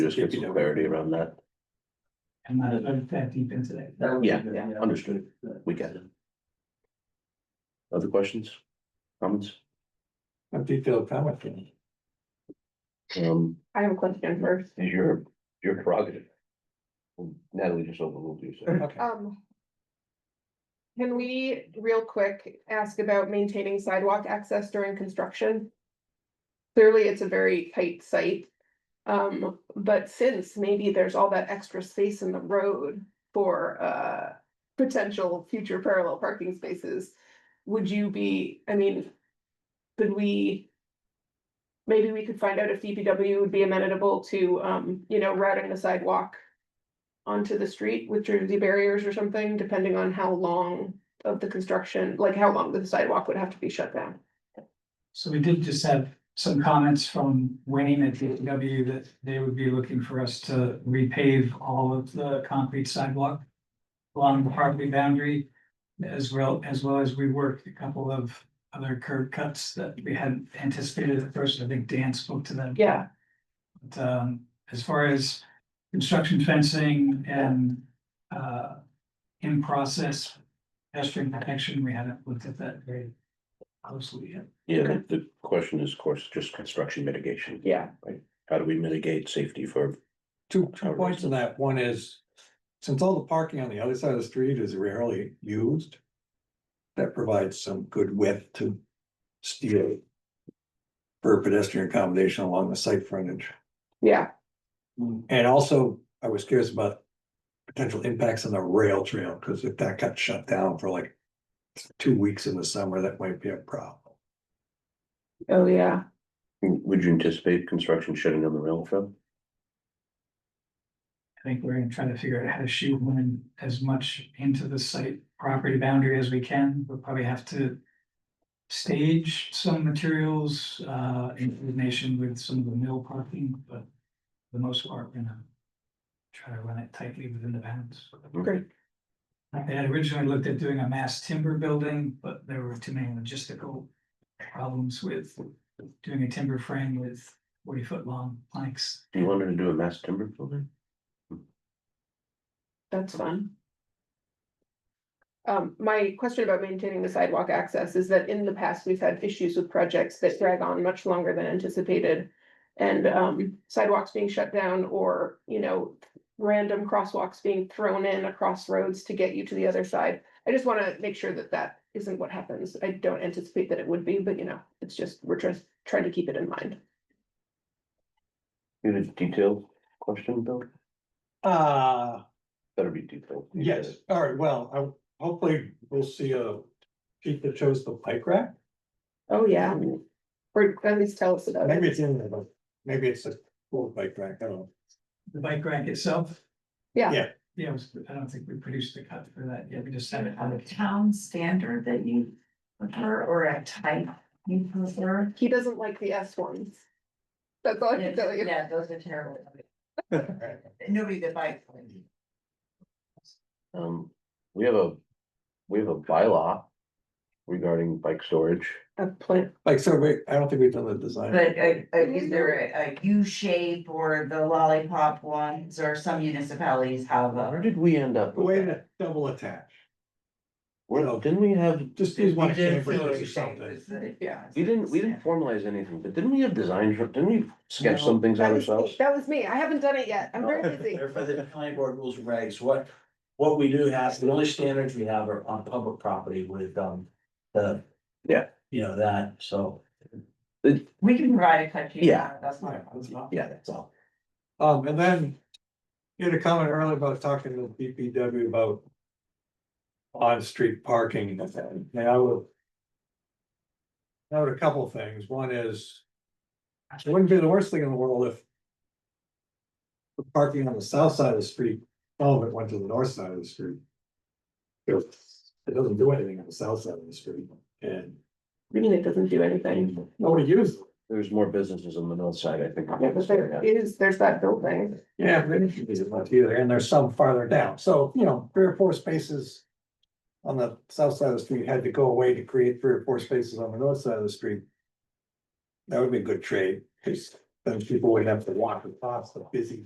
Just get some clarity around that. I'm not I'm that deep into that. Yeah, understood. We get it. Other questions? Comments? A detailed comment. Um, I have a question first. is your, your prerogative. Natalie just overruled you, so. Okay. Um. Can we, real quick, ask about maintaining sidewalk access during construction? Clearly, it's a very tight site. Um, but since maybe there's all that extra space in the road for uh potential future parallel parking spaces. Would you be, I mean, could we? Maybe we could find out if DPW would be amenable to um, you know, routing the sidewalk onto the street with Jersey barriers or something, depending on how long of the construction, like how long the sidewalk would have to be shut down. So we did just have some comments from Wayne at DPW that they would be looking for us to repave all of the concrete sidewalk. Along the property boundary, as well, as well as we worked a couple of other curb cuts that we hadn't anticipated at first, I think Dan spoke to them. Yeah, But um, as far as construction fencing and uh, in process pedestrian protection, we haven't looked at that very closely yet. Yeah, the- the question is, of course, just construction mitigation. yeah, How do we mitigate safety for, Two, How two it points is. on that. One is, since all the parking on the other side of the street is rarely used. That provides some good width to steal. For pedestrian accommodation along the site frontage. yeah, And also, I was curious about. Potential impacts on the rail trail, because if that got shut down for like. Two weeks in the summer, that might be a problem. oh, yeah. would you anticipate construction shutting down the rail trail? I think we're gonna try to figure out how to shoehorn as much into the site property boundary as we can. We'll probably have to stage some materials uh, in coordination with some of the mill parking, but for the most part, we're gonna try to run it tightly within the bounds. Hmm. Great. I had originally looked at doing a mass timber building, but there were too many logistical problems with doing a timber frame with forty foot long planks. Do you want her to do a mass timber building? That's fun. Um, my question about maintaining the sidewalk access is that in the past, we've had issues with projects that drag on much longer than anticipated. And um, sidewalks being shut down or, you know, random crosswalks being thrown in across roads to get you to the other side. I just want to make sure that that isn't what happens. I don't anticipate that it would be, but you know, it's just, we're just trying to keep it in mind. You had a detailed question, Bill? Uh, Better be detailed. You said Yes, it. all right, well, I, hopefully we'll see a sheet that shows the bike rack. Oh, yeah. Or at least tell us about Maybe it. it's in there, but maybe it's a full bike rack, I don't know. The bike rack itself, Yeah. Yeah. yeah, it was- I don't think we produced the cut for that yet. We just Is had it it on a the town standard that you prefer or a type you prefer? He doesn't like the S ones. That's all I can tell you. Yeah, those are terrible. Nobody that buys them. Um, we have a, we have a bylaw regarding bike storage. A plant, Like, so wait, I don't think we've done the design. But uh, uh, is there a- a U shape or the lollipop ones or some municipalities have Where a? did we end up? with Way that? to double attach, Where, didn't we have, just use one We did camber feel or shape something. was the- Yeah. we didn't, we didn't formalize anything, but didn't we have designs, didn't we sketch No. some things out that Oh. was, me. ourselves? that was me. I haven't done it yet. I'm very busy. They're for the planning board rules and regs, what, what we do have, the only standards we have are on public property with, um, the. Yeah. You know, that, so, We can provide a cut sheet. Yeah. That's not a problem. Yeah. that's all. Um, and then you had a comment earlier about talking to BPW about on-street parking, and I would note a couple things, one is it wouldn't be the worst thing in the world if the parking on the south side of the street, all of it went to the north side of the street. It doesn't do anything on the south side of the street, and I mean, it doesn't do anything. nobody uses it. There's more businesses on the north side, I think. Yeah, but there is, there's that building. Yeah, but it should be much either, and there's some farther down, so, you know, three or four spaces. On the south side of the street had to go away to create three or four spaces on the north side of the street. That would be a good trade, because then people would have to walk across the busy